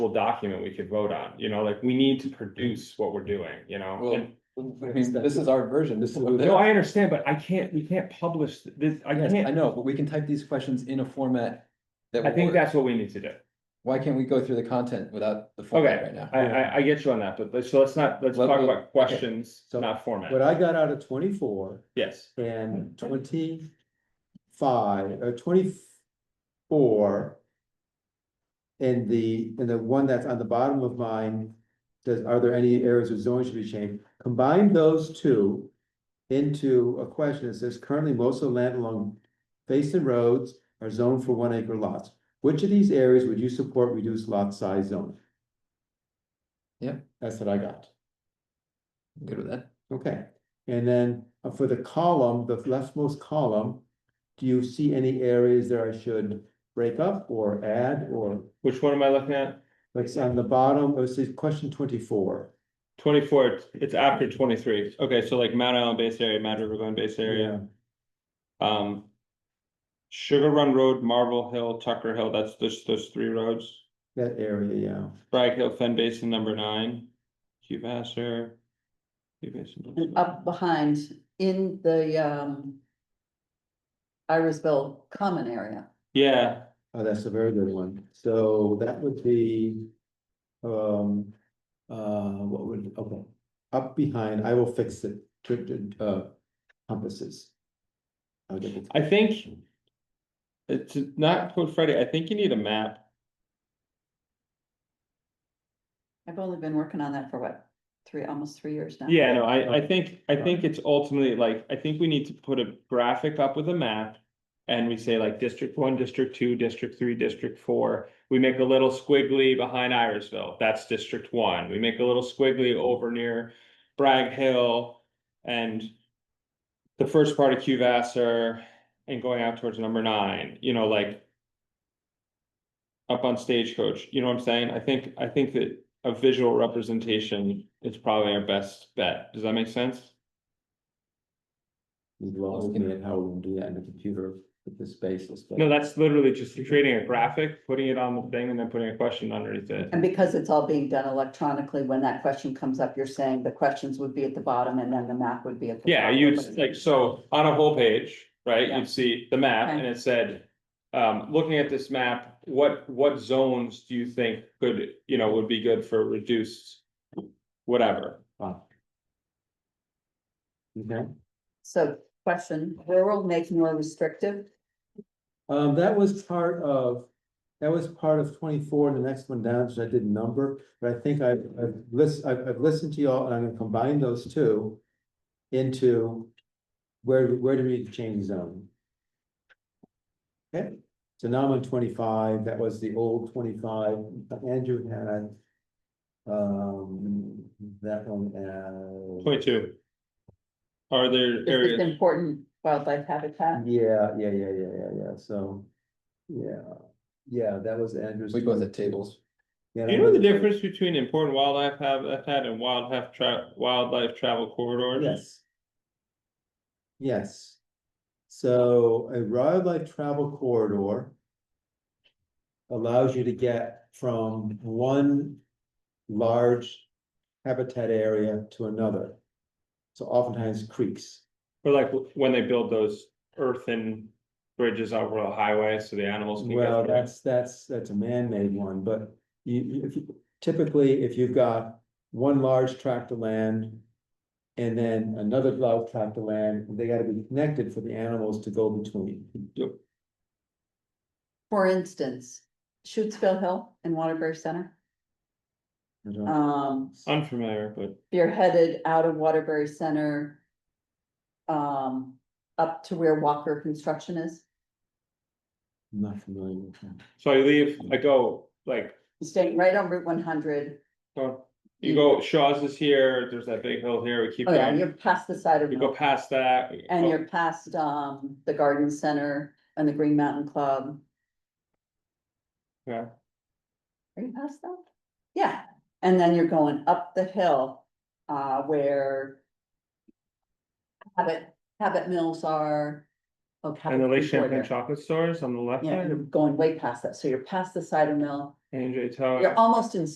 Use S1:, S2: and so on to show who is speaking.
S1: document we could vote on, you know, like, we need to produce what we're doing, you know?
S2: Well,
S1: And-
S2: I mean, this is our version, this is. what
S1: No, I understand, but I can't, we can't publish this, I
S2: Yes, I
S1: can't,
S2: know, but we can type these questions in a format. that
S1: I think
S2: will work.
S1: that's what we need to do.
S2: Why can't we go through the content without the format
S1: Okay.
S2: right now?
S1: I, I, I get you on that, but let's, so let's not, let's
S2: Let-
S1: talk
S2: let- okay.
S1: about questions,
S3: So,
S1: not format.
S3: What I got out of twenty-four
S1: Yes,
S3: and uh, twenty-five, or twenty-four. And the, and the one that's on the bottom of mine, does, are there any areas of zoning should be changed? Combine those two into a question that says currently most of the land along basin roads are zoned for one acre lots. Which of these areas would you support reduced lot size zoning?
S2: Yeah.
S3: That's what I got.
S2: I'm Good with that?
S3: Okay, and then uh, for the column, the leftmost column, do you see any areas that I should break up or add or?
S1: which one am I looking at?
S3: Like it's on the bottom, it says question twenty-four.
S1: Twenty-four, it's- it's after twenty-three, okay, so like Mount Island Base Area, Mad River Glen Base Area, um. Sugar Run Road, Marble Hill, Tucker Hill, that's those, those three roads.
S3: That area, yeah.
S1: Bragg Hill Fen Basin number nine, Cube Asser. Cube Basin.
S4: And up behind in the um. Irisville common area.
S1: Yeah,
S3: Oh, that's a very good one. So that would be, um, uh, what would, okay. Up behind, I will fix it, Tri- tri- uh, compasses. I'll get it.
S1: I think. It's not Code Friday, I think you need a map.
S4: I've only been working on that for what, three, almost three years now.
S1: Yeah, no, I, I think, I think it's ultimately like, I think we need to put a graphic up with a map. And we say like District One, District Two, District Three, District Four. We make a little squiggly behind Irisville, that's District One. We make a little squiggly over near Bragg Hill and the first part of Cuvasser and going out towards number nine, you know, like up on Stagecoach, you know what I'm saying? I think, I think that a visual representation is probably our best bet. Does that make sense?
S3: You lost me at how we'll do that in the computer with the spaces. but-
S1: No, that's literally just creating a graphic, putting it on the thing and then putting a question underneath it.
S4: And because it's all being done electronically, when that question comes up, you're saying the questions would be at the bottom and then the map would be at. the
S1: Yeah,
S4: top.
S1: you'd like, so on a whole page, right,
S4: Yeah.
S1: you'd see the map
S4: Okay.
S1: and it said. Um, looking at this map, what, what zones do you think could, you know, would be good for reduced? Whatever,
S3: Okay,
S4: So question, rural make more restrictive,
S3: um, that was part of, that was part of twenty-four, and the next one down, which I didn't number, but I think I, I've listened, I've, I've listened to y'all, and I'm gonna combine those two. Into where, where do we need to change zone? Okay, so now I'm on twenty-five, that was the old twenty-five, Andrew had. Um, that one, uh,
S1: point two. Are there Mm-hmm.
S4: is this
S1: areas,
S4: important wildlife habitat?
S3: yeah, yeah, yeah, yeah, yeah, yeah, so, yeah, yeah, that was Andrew's.
S2: We go with the tables.
S3: Yeah,
S1: do you know the difference between important wildlife habitat and wildlife tra- wildlife travel corridors?
S3: Yes. Yes. So a wildlife travel corridor. Allows you to get from one large habitat area to another. So oftentimes creeks.
S1: Or like when they build those earthen bridges over the highway so the animals can
S3: Well,
S1: go through.
S3: that's, that's, that's a man-made one, but you, you- if you, typically, if you've got one large tract of land. And then another large tract of land, they gotta be connected for the animals to go between.
S4: For instance, Shutesville Hill and Waterbury Center,
S3: I don't-
S4: um,
S1: Unfamiliar, but
S4: you're headed out of Waterbury Center. Um, up to where Walker Construction is,
S3: I'm Not familiar with that.
S1: so I leave, I go like,
S4: staying right on Route one hundred.
S1: go- you go Shaw's is here, there's that big hill here, we keep
S4: Oh, yeah,
S1: going.
S4: you're past the side of,
S1: You go oh. past that. we
S4: and
S1: go-
S4: you're past, um, the garden center and the Green Mountain Club.
S1: Yeah.
S4: Are you past that? Yeah, and then you're going up the hill, uh, where. Habit, Habit Mills are, Okay.
S1: and the Lake Champlain chocolate stores on the left
S4: Yeah, you're
S1: hand,
S4: going way past that, so you're past the cider mill,
S1: and J Tower.
S4: you're almost in